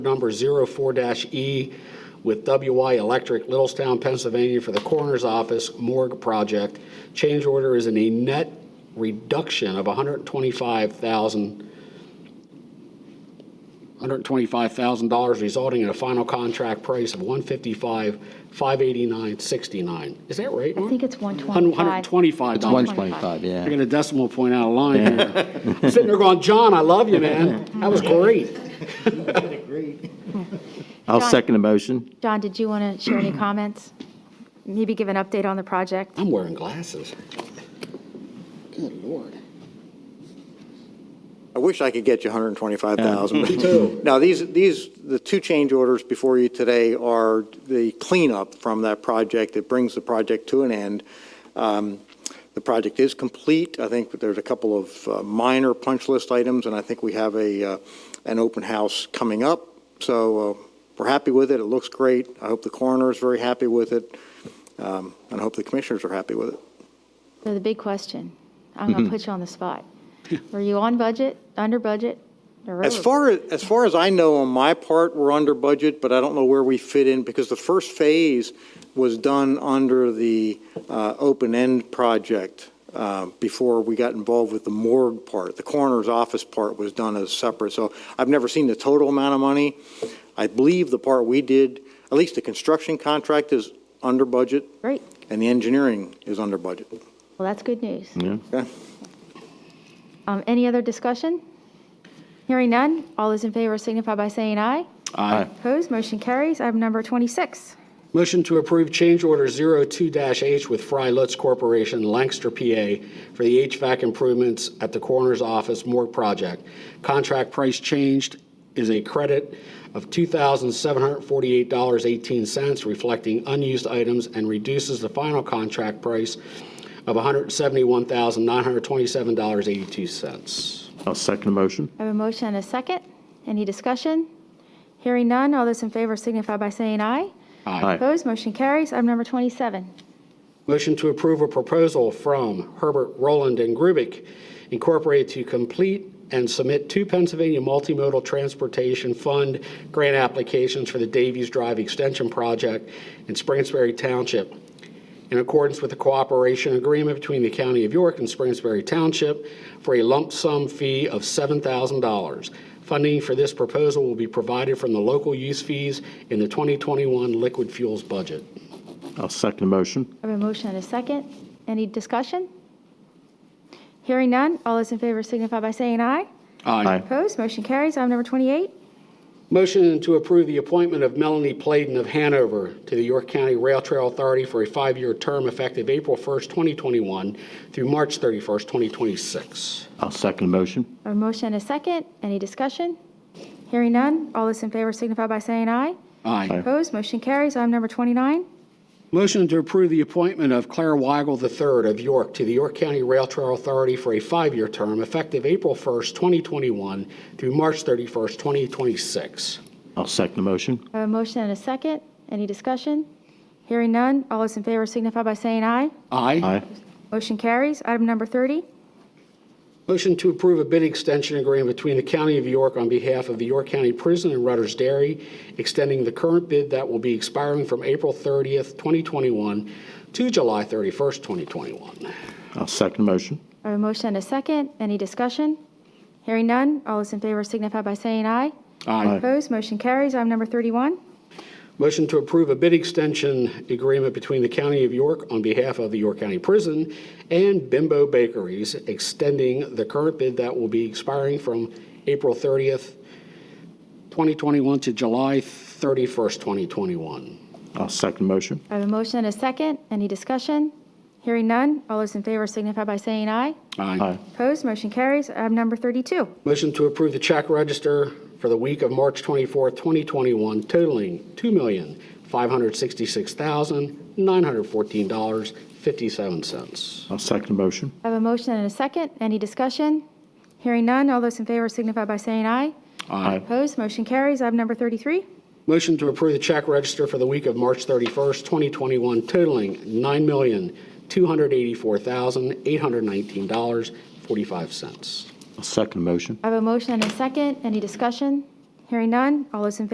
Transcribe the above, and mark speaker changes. Speaker 1: number 04-E E with WY Electric, Littlestown, Pennsylvania, for the Coroner's Office Morgue Project. Change order is in a net reduction of 125,000, $125,000, resulting in a final contract price of 155,589.69. Is that right,
Speaker 2: I
Speaker 1: Mark?
Speaker 2: think it's 125.
Speaker 1: 125.
Speaker 2: It's
Speaker 1: dollars.
Speaker 2: 125,
Speaker 1: I
Speaker 3: yeah.
Speaker 1: got a decimal point out of line here. I'm Sitting there going, John, I love you, man. That was great.
Speaker 3: I'll
Speaker 2: John-
Speaker 3: second the motion.
Speaker 2: John, did you want to share any comments? Maybe give an update on the project?
Speaker 1: I'm wearing glasses.
Speaker 4: I wish I could get you 125,000. Me
Speaker 1: too.
Speaker 4: Now, these, these, the two change orders before you today are the cleanup from that project that brings the project to an end. Um, The project is complete. I think there's a couple of uh, minor punch list items, and I think we have a, uh, an open house coming up. So uh, we're happy with it. It looks great. I hope the coroner is very happy with it, um, and I hope the commissioners are happy with it.
Speaker 2: So the big question, I'm going to put you on the spot. Were you on budget, under budget, or
Speaker 4: As
Speaker 2: over?
Speaker 4: far as, as far as I know, on my part, we're under budget, but I don't know where we fit in, because the first phase was done under the uh, open-end project uh, before we got involved with the morgue part. The coroner's office part was done as separate, so I've never seen the total amount of money. I believe the part we did, at least the construction contract is under budget,
Speaker 2: Great,
Speaker 4: and the engineering is under budget.
Speaker 2: well, that's good news.
Speaker 4: Okay?
Speaker 2: Um, Any other discussion? Hearing none, all those in favor signify by saying aye.
Speaker 3: Aye.
Speaker 2: Opposed, motion carries. Item number 26.
Speaker 1: Motion to approve change order 02-H with Fry Lutz Corporation, Lancaster, PA, for the HVAC improvements at the Coroner's Office Morgue Project. Contract price changed is a credit of $2,748.18, reflecting unused items, and reduces the final contract price of $171,927.82.
Speaker 3: I'll second the motion.
Speaker 2: I have a motion and a second. Any discussion? Hearing none, all those in favor signify by saying aye.
Speaker 3: Aye.
Speaker 2: Opposed, motion carries. Item number 27.
Speaker 1: Motion to approve a proposal from Herbert Roland and Grubik Incorporated to complete and submit two Pennsylvania Multimodal Transportation Fund grant applications for the Davies Drive Extension Project in Springsbury Township in accordance with the cooperation agreement between the County of York and Springsbury Township for a lump sum fee of $7,000. Funding for this proposal will be provided from the local use fees in the 2021 liquid fuels budget.
Speaker 3: I'll second the motion.
Speaker 2: I have a motion and a second. Any discussion? Hearing none, all those in favor signify by saying aye.
Speaker 3: Aye.
Speaker 2: Opposed, motion carries. Item number 28.
Speaker 1: Motion to approve the appointment of Melanie Pladen of Hanover to the York County Rail Trail Authority for a five-year term effective April 1st, 2021 through March 31st, 2026.
Speaker 3: I'll second the motion.
Speaker 2: I have a motion and a second. Any discussion? Hearing none, all those in favor signify by saying aye.
Speaker 3: Aye.
Speaker 2: Opposed, motion carries. Item number 29.
Speaker 1: Motion to approve the appointment of Claire Weigel III of York to the York County Rail Trail Authority for a five-year term effective April 1st, 2021 through March 31st, 2026.
Speaker 3: I'll second the motion.
Speaker 2: I have a motion and a second. Any discussion? Hearing none, all those in favor signify by saying aye.
Speaker 3: Aye.
Speaker 2: Motion carries. Item number 30.
Speaker 1: Motion to approve a bid extension agreement between the County of York on behalf of the York County Prison and Rudders Dairy, extending the current bid that will be expiring from April 30th, 2021 to July 31st, 2021.
Speaker 3: I'll second the motion.
Speaker 2: I have a motion and a second. Any discussion? Hearing none, all those in favor signify by saying aye.
Speaker 3: Aye.
Speaker 2: Opposed, motion carries. Item number 31.
Speaker 1: Motion to approve a bid extension agreement between the County of York on behalf of the York County Prison and Bimbo Bakeries, extending the current bid that will be expiring from April 30th, 2021 to July 31st, 2021.
Speaker 3: I'll second the motion.
Speaker 2: I have a motion and a second. Any discussion? Hearing none, all those in favor signify by saying aye.
Speaker 3: Aye.
Speaker 2: Opposed, motion carries. Item number 32.
Speaker 1: Motion to approve the check register for the week of March 24, 2021 totaling $2,566,914.57.
Speaker 3: I'll second the motion.
Speaker 2: I have a motion and a second. Any discussion? Hearing none, all those in favor signify by saying aye.
Speaker 3: Aye.
Speaker 2: Opposed, motion carries. Item number 33.
Speaker 1: Motion to approve the check register for the week of March 31, 2021 totaling $9,284,819.45.
Speaker 3: I'll second the motion.
Speaker 2: I have a motion and a second. Any discussion? Hearing none, all those in favor